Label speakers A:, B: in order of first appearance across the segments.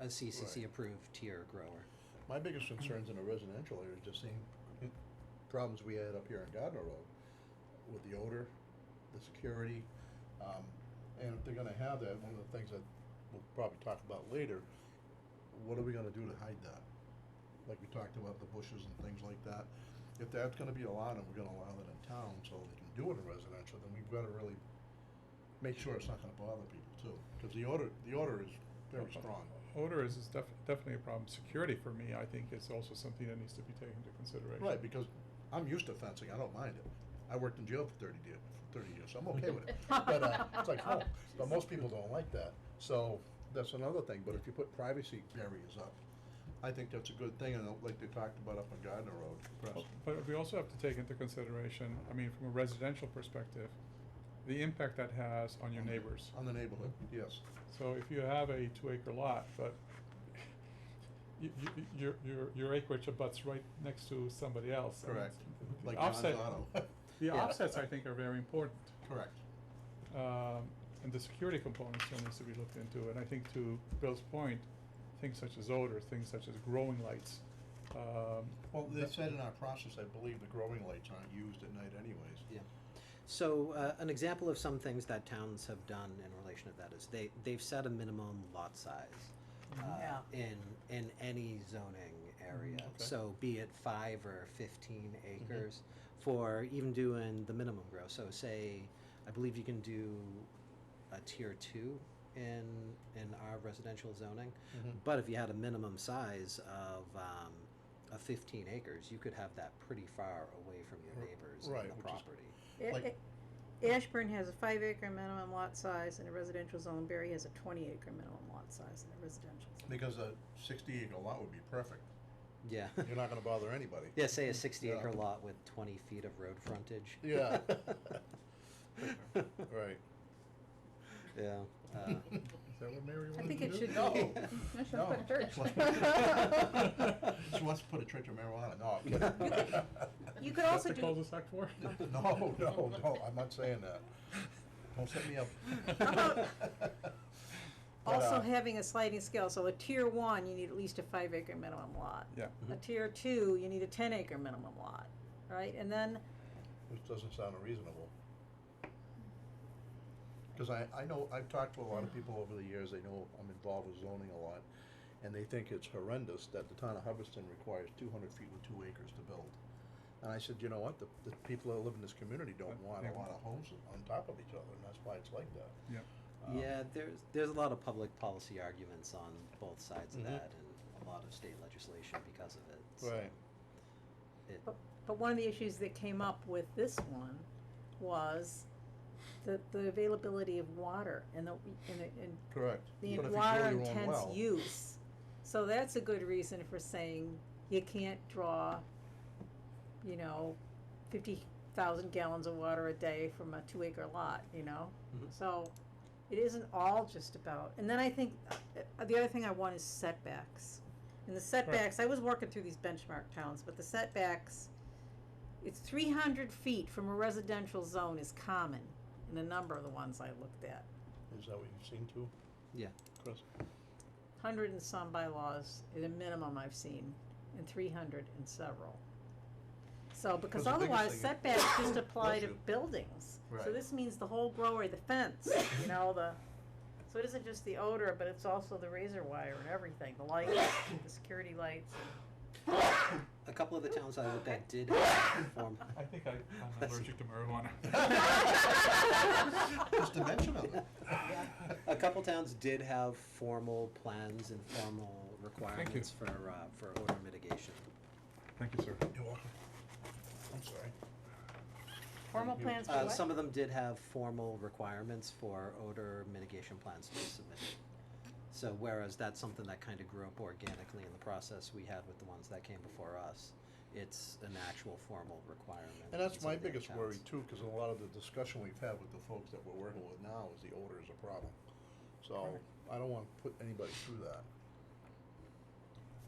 A: a CCC approved tier grower.
B: My biggest concerns in a residential area is just seeing problems we had up here on Gardner Road with the odor, the security. Um, and if they're gonna have that, one of the things that we'll probably talk about later, what are we gonna do to hide that? Like we talked about the bushes and things like that. If that's gonna be allowed and we're gonna allow it in town so they can do it in residential, then we've gotta really make sure it's not gonna bother people too. Cause the odor, the odor is very strong.
C: Odor is, is def- definitely a problem. Security for me, I think, is also something that needs to be taken into consideration.
B: Right, because I'm used to fencing, I don't mind it. I worked in jail for thirty years, thirty years, so I'm okay with it. But, uh, it's like home, but most people don't like that, so that's another thing, but if you put privacy barriers up, I think that's a good thing, and like they talked about up on Gardner Road,
C: Well,
B: perhaps.
C: But we also have to take into consideration, I mean, from a residential perspective, the impact that has on your neighbors.
B: On the neighborhood, yes,
C: So if you have a two acre lot, but you, you, your, your, your acreage abuts right next to somebody else. and
B: correct,
C: it's- the
B: like John's
C: offset-
B: Auto.
C: The
B: Yeah.
C: offsets, I think, are very important.
B: Correct,
C: Um, and the security component still needs to be looked into, and I think to Bill's point, things such as odor, things such as growing lights, um.
B: well, they
C: that-
B: said in our process, I believe the growing lights aren't used at night anyways.
A: Yeah. So uh, an example of some things that towns have done in relation to that is they they've set a minimum lot size. Uh,
D: Yeah.
A: In in any zoning area,
C: okay.
A: so be it five or fifteen acres, for even doing the minimum grow. So say, I believe you can do a tier two in in our residential zoning,
C: Mm-hmm.
A: but if you had a minimum size of um, of fifteen acres, you could have that pretty far away from your
B: R-
A: neighbors
B: right,
A: and the
B: which is-
A: property.
D: A-
B: Like-
D: a- Ashburn has a five acre minimum lot size in a residential zone, Berry has a twenty acre minimum lot size in a residential zone.
B: Because a sixty acre lot would be perfect,
A: Yeah.
B: you're not gonna bother anybody.
A: Yeah, say a sixty
B: Yeah.
A: acre lot with twenty feet of road frontage.
B: Yeah. Right.
A: Yeah. Uh,
B: Is that what Mary
D: I
B: wanted
D: think
B: to
D: it
B: do?
D: should be.
B: No.
D: I should
B: No. uh,
D: put a church.
B: She wants to put a church of marijuana. No, I'm kidding.
D: You could also
C: That's the
D: do,
C: cul-de-sac for?
B: No, no, no, I'm not saying that. Don't set me up.
D: How about-
B: But,
D: also
B: uh,
D: having a sliding scale, so a tier one, you need at least a five acre minimum lot.
C: Yeah,
B: Mm-hmm.
D: A tier two, you need a ten acre minimum lot, right? And then,
B: Which doesn't sound unreasonable. Because I, I know, I've talked to a lot of people over the years, they know I'm involved with zoning a lot, and they think it's horrendous that the town of Hubbardston requires two hundred feet with two acres to build. And I said, you know what, the, the people that live in this community don't want a lot of homes on top of each other, and that's why it's like that.
C: yeah.
B: Um,
A: yeah, there's there's a lot of public policy arguments on both sides of
B: Mhm.
A: that, and a lot of state legislation because of it. so
B: Right.
A: It,
D: but, but one of the issues that came up with this one was the, the availability of water and the, and, the- and
B: Correct.
D: the
B: But if you
D: water
B: drill your own
D: intense
B: well-
D: use. So that's a good reason for saying you can't draw, you know, fifty thousand gallons of water a day from a two acre lot, you know?
B: Hmm.
A: Mhm.
D: So it isn't all just about, and then I think, uh, the other thing I want is setbacks. And the setbacks, I was working through these benchmark towns, but the setbacks, it's three hundred feet from a residential zone is common in a number of the ones I looked at.
B: Is that what you've seen too,
A: yeah.
B: Chris?
D: hundred and some bylaws at a minimum I've seen, and three hundred and several. So, because
B: the biggest
D: otherwise
B: thing is-
D: setbacks just apply to
B: Bless you.
D: buildings, so
B: Right.
D: this means the whole grower, the fence, you know, the, so it isn't just the odor, but it's also the razor wire and everything, the lights, the security lights.
A: A couple of the towns I looked at did have form.
C: I think I, I'm allergic to marijuana.
B: Just a mention of it.
A: A couple towns did have formal plans and formal requirements for uh, for odor mitigation.
C: Thank you, sir.
B: You're welcome. I'm sorry.
D: Formal plans for
A: Uh,
D: what?
A: some of them did have formal requirements for odor mitigation plans to be submitted. So whereas that's something that kind of grew up organically in the process we had with the ones that came before us, it's an actual formal requirement.
B: And that's
A: in some
B: my
A: of the other
B: biggest worry
A: towns.
B: too, because a lot of the discussion we've had with the folks that we're working with now is the odor is a problem. So I don't want to put anybody through that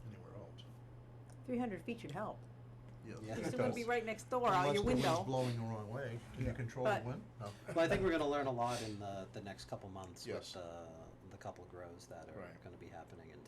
B: anywhere else.
D: Three hundred feet should help,
A: Yeah. It
D: at least it wouldn't be right next door out
B: Unless
D: your
B: the wind's
D: window.
B: blowing the wrong way. Can you
C: Yeah.
B: control the
D: But-
B: wind? No.
A: Well, I think we're gonna learn a lot in the, the next couple months
B: Yes.
A: with the, the couple grows that are
B: Right.
A: gonna be happening in town.